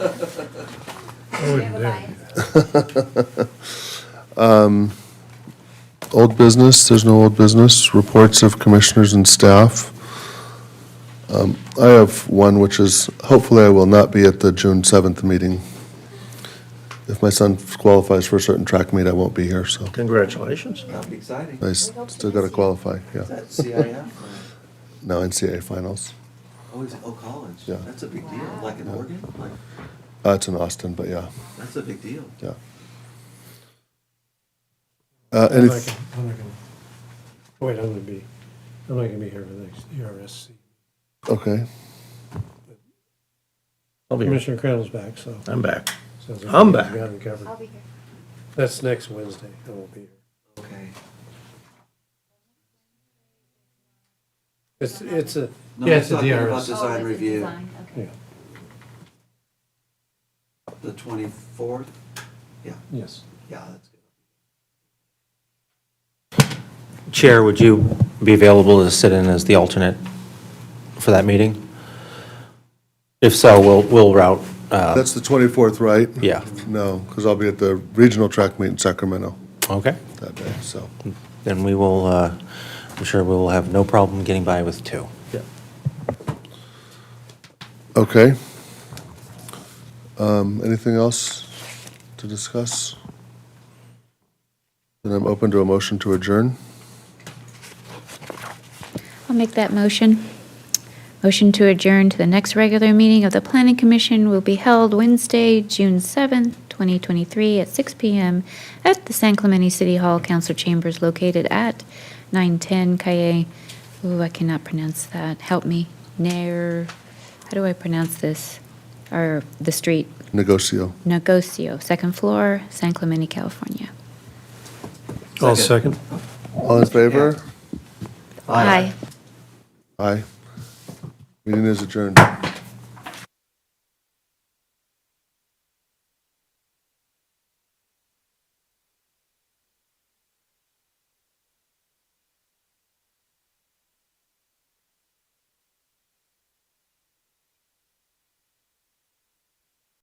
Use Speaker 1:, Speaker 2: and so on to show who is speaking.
Speaker 1: We have a bias.
Speaker 2: Old business, there's no old business, reports of commissioners and staff. Um, I have one, which is hopefully I will not be at the June 7th meeting. If my son qualifies for a certain track meet, I won't be here, so
Speaker 3: Congratulations.
Speaker 4: That'd be exciting.
Speaker 2: I s- still got to qualify,
Speaker 4: Is
Speaker 2: yeah.
Speaker 4: that CIF? or-
Speaker 2: No NCAA finals.
Speaker 4: uh, Oh, is it, oh, college?
Speaker 2: Yeah.
Speaker 4: That's a big deal, like in Oregon, like,
Speaker 2: Uh, It's in Austin, but yeah,
Speaker 4: that's a big deal.
Speaker 2: yeah. Uh,
Speaker 5: I'm
Speaker 2: any-
Speaker 5: not gonna- I'm not gonna, wait, I'm gonna be, I'm not gonna be here for the next E ERSC.
Speaker 2: Okay,
Speaker 3: I'll be,
Speaker 5: Commissioner Crandall's back, so.
Speaker 3: I'm back.
Speaker 5: sounds like
Speaker 3: I'm
Speaker 5: he's
Speaker 3: back.
Speaker 5: got it covered.
Speaker 1: I'll be here.
Speaker 5: That's next Wednesday, I won't be here.
Speaker 4: Okay.
Speaker 5: It's, it's a,
Speaker 4: No,
Speaker 5: yeah, it's a
Speaker 4: he's talking about
Speaker 5: DRS.
Speaker 4: this- Design
Speaker 1: Oh, this is
Speaker 4: review.
Speaker 1: design, okay.
Speaker 5: Yeah,
Speaker 4: The twenty-fourth? Yeah,
Speaker 5: yes.
Speaker 4: yeah, that's good.
Speaker 6: Chair, would you be available to sit in as the alternate for that meeting? If so, we'll, we'll route, uh,
Speaker 2: that's the 24th, right?
Speaker 6: Yeah.
Speaker 2: No, because I'll be at the regional track meet in Sacramento
Speaker 6: okay?
Speaker 2: that day, so.
Speaker 6: Then we will, uh, I'm sure we will have no problem getting by with two.
Speaker 3: Yeah.
Speaker 2: Okay. Um, Anything else to discuss? Then I'm open to a motion to adjourn.
Speaker 7: I'll make that motion. Motion to adjourn to the next regular meeting of the Planning Commission will be held Wednesday, June 7th, 2023, at 6 PM at the San Clemente City Hall Council Chambers located at 910 Calle, ooh, I cannot pronounce that, help me, Nair, how do I pronounce this? Or the street,
Speaker 2: Negocio.
Speaker 7: Negocio, second floor, San Clemente, California.
Speaker 5: All second.
Speaker 2: All in favor?
Speaker 7: Aye.
Speaker 2: Aye. Meeting is adjourned.